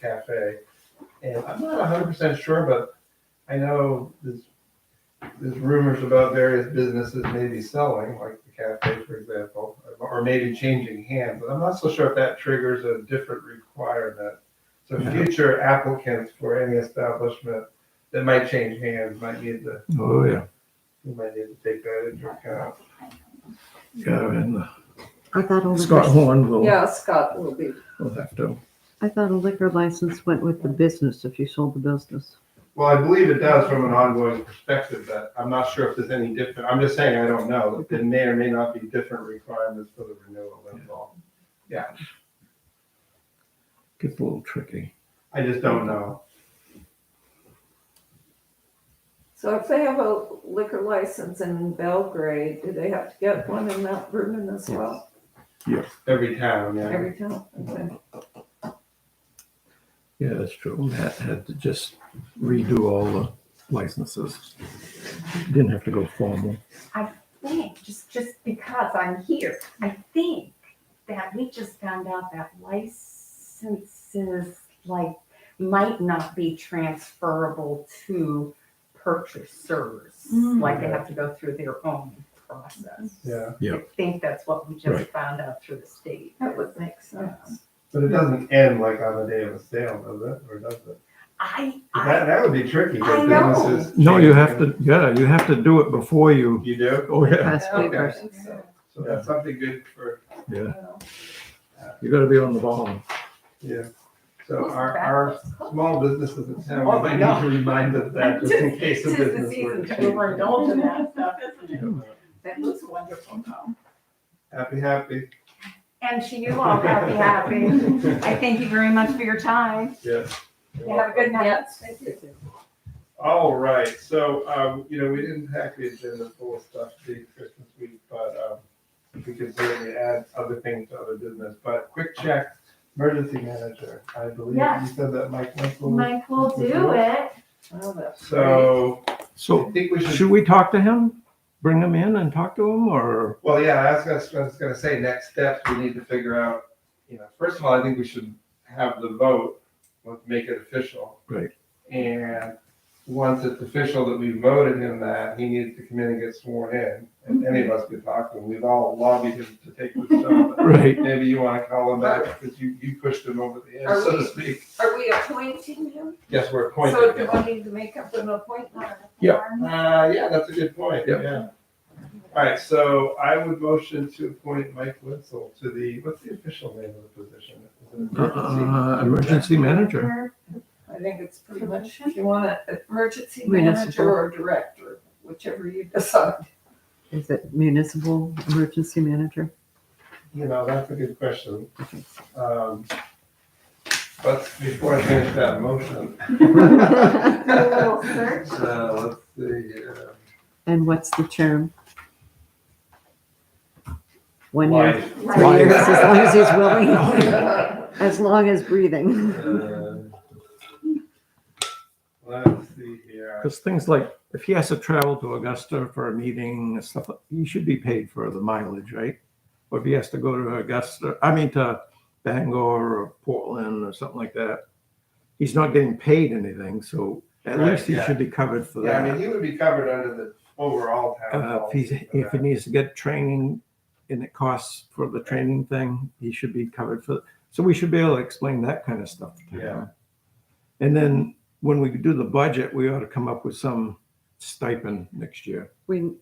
Cafe. And I'm not hundred percent sure, but I know there's, there's rumors about various businesses maybe selling, like the cafe, for example, or maybe changing hands, but I'm not so sure if that triggers a different requirement. So Yeah. future applicants for any establishment that might change hands might need to, Oh, yeah. you might need to take that into account. Yeah, and I thought a Scott liquor, Horn will, Yeah, Scott will be. will have to. I thought a liquor license went with the business if you sold the business. Well, I believe it does from an ongoing perspective, but I'm not sure if there's any different, I'm just saying, I don't know. There may or may not be different requirements for the renewal involved. Gets a little tricky. I just don't know. So if they have a liquor license in Belgrade, do they have to get one in Mount Vernon as well? Every town, yeah. Every town? Okay. Yeah, that's true. Matt had to just redo all the licenses. Didn't have to go formal. think, just, just because I'm here, I think that we just found out that licenses like might not be transferable to purchasers. Mm. Like they have to go through their own process. Yeah, Yeah. I think that's what we Right. just found out through the state. That would make sense. but it doesn't end like on the day of a sale, does it, or does it? I, I, That, that would be tricky. 'cause I know. businesses No, you change. have to, yeah, you have to do it before you, You do? oh, yeah. Past papers. I think so. So that's something good for, Yeah, Well, you gotta be on the ball. yeah. So Who's our, back? our small businesses in town, Oh, we my need God. to remind us that just in case a tis the business were season to to overindulge in change. that stuff, isn't it? Yeah. That looks wonderful though. Happy, happy. And to you all, happy, happy. I thank you very much for your time. Yes. You have a good night. Yes, thank you. All right, so, um, you know, we didn't have the agenda full of stuff to do Christmas week, but, um, we can certainly add other things to other business, but quick check, emergency manager, I believe you Yes. said that Mike Winkle. Mike will do it. Well, that's great. So, I So think we should, should we talk to him? Bring him in and talk to him or? well, yeah, I was gonna, I was gonna say, next steps, we need to figure out, you know, first of all, I think we should have the vote, let's make it official. Right. And once it's official that we voted him that, he needs to come in and get sworn in, and any of us could talk to him, we've all lobbied him to take this job. Right. Maybe you wanna call him back, because you, you pushed him over the Are edge, so to we- speak. Are we appointing him? Yes, we're appointing So him. do I need to make up an appointment? Yeah. Uh, yeah, that's a good point, Yep. yeah. All right, so I would motion to appoint Mike Witzel to the, what's the official name of the position? Is it emergency? Uh, emergency manager. I think it's pretty much, if you want an emergency Municipal. manager or director, whichever you decide. Is it municipal emergency manager? You know, that's a good question. Um, But before I finish that motion. Do a little search. So, let's see, uh, And what's the term? One year, life. three Why? years, as long as he's willing, as long as breathing. Uh, Let's see here. Because things like, if he has to travel to Augusta for a meeting and stuff, he should be paid for the mileage, right? Or if he has to go to Augusta, I mean to Bangor or Portland or something like that, he's not getting paid anything, so at Right, least he yeah. should be covered for Yeah, I mean, that. he would be covered under the overall town. Uh, if he's, policy for if he that. needs to get training and it costs for the training thing, he should be covered for, so we should be able to explain that kind of stuff to him. Yeah. And then when we do the budget, we ought to come up with some stipend next year. We,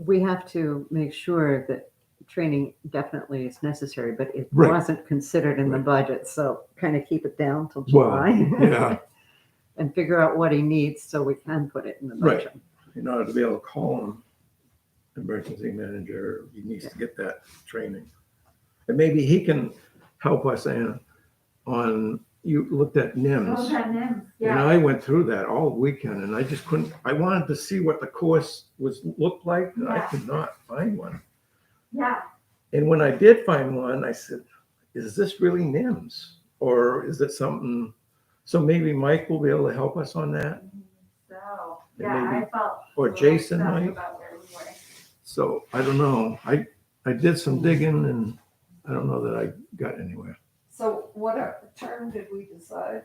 we have to make sure that training definitely is necessary, but it Right. wasn't considered in the Right. budget, so kind of keep it down till Well, July Yeah, and figure out what he needs so we can put it in the Right. budget. in order to be able to call him, emergency manager, he needs to get that training. And maybe he can help us in on, you looked at Oh, NIMS. that name. And Yeah. I went through that all weekend and I just couldn't, I wanted to see what the course was, looked like, and I Yeah. could not find one. Yeah. And when I did find one, I said, is this really NIMS? Or is it something, so maybe Mike will be able to help us on that, So, And yeah, maybe- I felt. or really Jason stuck might. About where we were. So I don't know. I, I did some digging and I don't know that I got anywhere. So what uh, term did we decide?